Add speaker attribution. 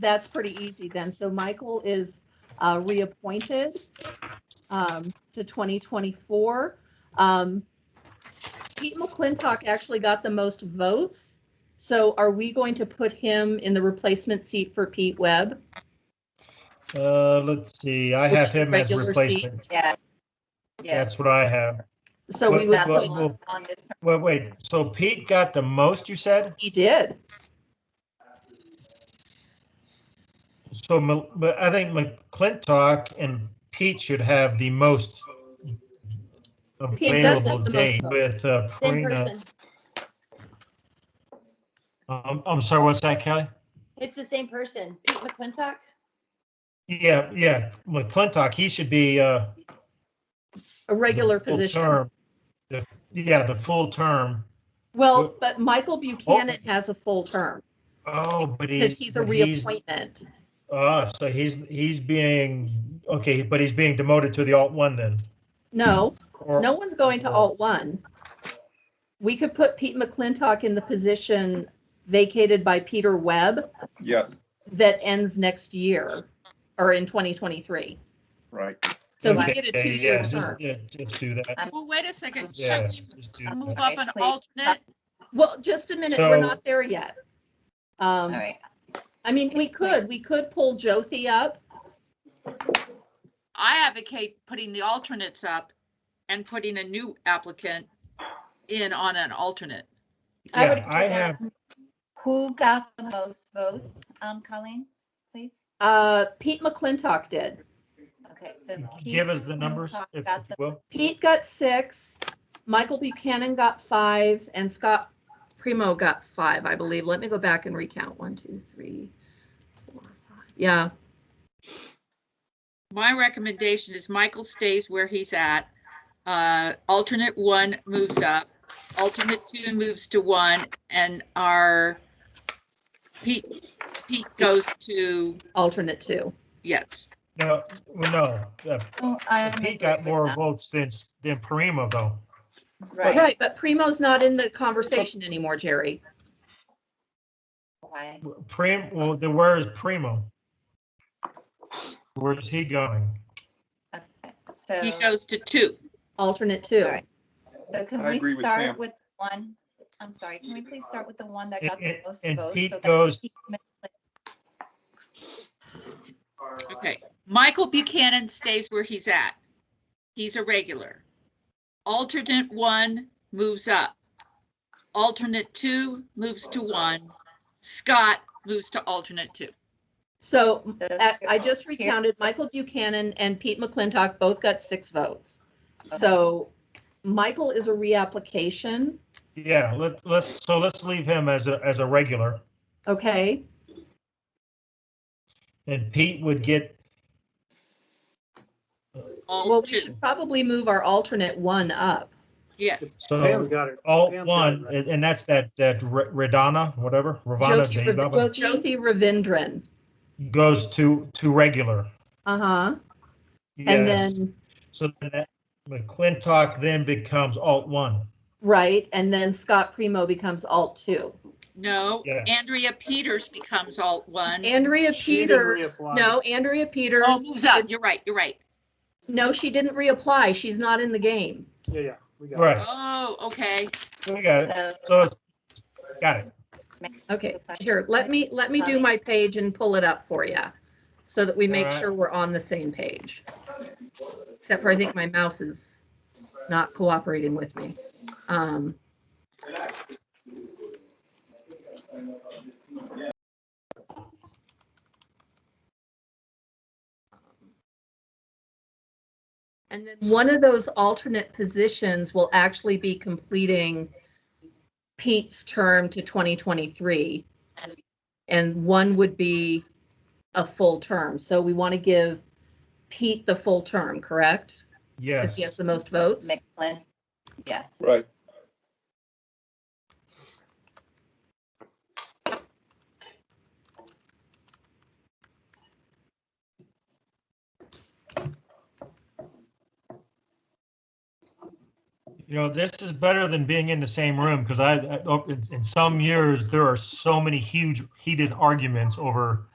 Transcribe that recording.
Speaker 1: that's pretty easy then. So Michael is uh, reappointed um, to 2024. Um, Pete McClintock actually got the most votes. So are we going to put him in the replacement seat for Pete Webb?
Speaker 2: Uh, let's see, I
Speaker 1: which
Speaker 2: have
Speaker 1: is a
Speaker 2: him as
Speaker 1: regular seat?
Speaker 2: replacement.
Speaker 3: Yeah. Yeah.
Speaker 2: That's what I have.
Speaker 1: So we would,
Speaker 3: That's
Speaker 2: well,
Speaker 3: the
Speaker 1: put-
Speaker 3: one
Speaker 2: well-
Speaker 3: on this-
Speaker 2: Wait, wait, so Pete got the most, you said?
Speaker 1: he did.
Speaker 2: So Ma- Ma- I think McClintock and Pete should have the most
Speaker 1: Pete does have
Speaker 2: available
Speaker 1: the most
Speaker 2: date
Speaker 1: votes.
Speaker 2: with uh,
Speaker 1: In
Speaker 2: Karina.
Speaker 1: person.
Speaker 2: Um, I'm sorry, what's that, Kelly?
Speaker 4: It's the same person, Pete McClintock.
Speaker 2: Yeah, yeah, McClintock, he should be, uh,
Speaker 1: A regular
Speaker 2: full
Speaker 1: position.
Speaker 2: term. The- Yeah, the full term.
Speaker 1: Well, but Michael Buchanan has a full term
Speaker 2: Oh, but he's.
Speaker 1: because he's a
Speaker 2: but
Speaker 1: reappointment.
Speaker 2: Ah, so he's, he's being, okay, but he's being demoted to the alt one then?
Speaker 1: No,
Speaker 2: or-
Speaker 1: no one's going to alt one. We could put Pete McClintock in the position vacated by Peter Webb
Speaker 5: Yes,
Speaker 1: that ends next year or in 2023.
Speaker 5: right.
Speaker 1: So we
Speaker 2: Okay,
Speaker 1: get a
Speaker 2: yeah,
Speaker 1: two-year
Speaker 2: just-
Speaker 1: term.
Speaker 2: yeah, Just do that.
Speaker 6: Well, wait a second.
Speaker 2: Yeah.
Speaker 6: Should we
Speaker 2: just do
Speaker 6: Uh, move
Speaker 2: that.
Speaker 6: up an alternate?
Speaker 1: Well, just a minute, we're
Speaker 2: So-
Speaker 1: not there yet. Um,
Speaker 3: All right.
Speaker 1: I mean, we could, we could pull Jothi up.
Speaker 6: I advocate putting the alternates up and putting a new applicant in on an alternate.
Speaker 3: I would
Speaker 2: Yeah, I have,
Speaker 3: agree with that. Who got the most votes, um, Colleen, please?
Speaker 1: Uh, Pete McClintock did.
Speaker 3: Okay, so. Pete
Speaker 2: give us the numbers
Speaker 3: Hancock
Speaker 2: if
Speaker 3: got
Speaker 2: you
Speaker 3: the-
Speaker 2: will.
Speaker 1: Pete got six, Michael Buchanan got five, and Scott Primo got five, I believe. Let me go back and recount. One, two, three, four, five. Yeah,
Speaker 6: My recommendation is Michael stays where he's at. Uh, alternate one moves up, alternate two moves to one, and our Pete, Pete goes to,
Speaker 1: alternate two.
Speaker 6: yes.
Speaker 2: No, well, no, uh,
Speaker 3: Oh, I'm
Speaker 2: Pete
Speaker 3: agree
Speaker 2: got
Speaker 3: with
Speaker 2: more
Speaker 3: that.
Speaker 2: votes than, s- than Primo though.
Speaker 3: Right.
Speaker 1: Right, but Primo's not in the conversation anymore, Jerry.
Speaker 3: Why?
Speaker 2: Prim, well, then where is Primo? Where's he going?
Speaker 3: Okay, So,
Speaker 6: He goes to two.
Speaker 1: Alternate two.
Speaker 3: All right. so can
Speaker 5: I agree
Speaker 3: we
Speaker 5: with Pam.
Speaker 3: start with one? I'm sorry, can we please start with the one that
Speaker 2: And-
Speaker 3: got the
Speaker 2: and-
Speaker 3: most
Speaker 2: and
Speaker 3: votes?
Speaker 2: Pete
Speaker 3: so that
Speaker 2: goes-
Speaker 3: Pete
Speaker 6: Okay, Michael Buchanan stays where he's at. He's a regular. Alternate one moves up. Alternate two moves to one. Scott moves to alternate two.
Speaker 1: So
Speaker 3: does-
Speaker 1: I I just recounted, Michael Buchanan and Pete McClintock both got six votes.
Speaker 3: Uh-huh.
Speaker 1: So Michael is a reapplication,
Speaker 2: Yeah, let, let's, so let's leave him as a, as a regular.
Speaker 1: okay?
Speaker 2: And Pete would get,
Speaker 1: Well,
Speaker 6: All
Speaker 1: we
Speaker 6: two,
Speaker 1: should probably move our alternate one up.
Speaker 6: yes.
Speaker 2: so
Speaker 7: got it.
Speaker 2: alt
Speaker 7: Pam's got it
Speaker 2: one,
Speaker 7: right.
Speaker 2: and and that's that, that Re- Radana, whatever, Ravana's
Speaker 1: Jyoti
Speaker 2: name,
Speaker 1: Rav-
Speaker 2: of
Speaker 1: Jyoti Ravindran.
Speaker 2: it, goes to, to regular.
Speaker 1: Uh-huh. And
Speaker 2: Yes.
Speaker 1: then,
Speaker 2: So then that McClintock then becomes alt one.
Speaker 1: right, and then Scott Primo becomes alt two.
Speaker 6: No,
Speaker 2: Yes.
Speaker 6: Andrea Peters becomes alt one.
Speaker 1: Andrea
Speaker 7: She didn't
Speaker 1: Peters,
Speaker 7: reapply.
Speaker 1: no, Andrea
Speaker 6: Oh,
Speaker 1: Peters,
Speaker 6: moves up. You're right, you're right.
Speaker 1: no, she didn't reapply. She's not in the game.
Speaker 7: Yeah, yeah, we got it.
Speaker 2: Right,
Speaker 6: Oh, okay.
Speaker 2: we got it.
Speaker 3: So
Speaker 2: So, it's- got it.
Speaker 1: Okay, here, let me, let me do my page and pull it up for you so that we make
Speaker 2: Alright.
Speaker 1: sure we're on the same page. Except for I think my mouse is not cooperating with me. Um, And then one of those alternate positions will actually be completing Pete's term to 2023. And one would be a full term. So we want to give Pete the full term, correct? Because
Speaker 2: Yes.
Speaker 1: he has the most votes.
Speaker 3: McLean, yes.
Speaker 5: Right.
Speaker 2: You know, this is better than being in the same room oh, because I, I- in, in some years, there are so many huge heated arguments over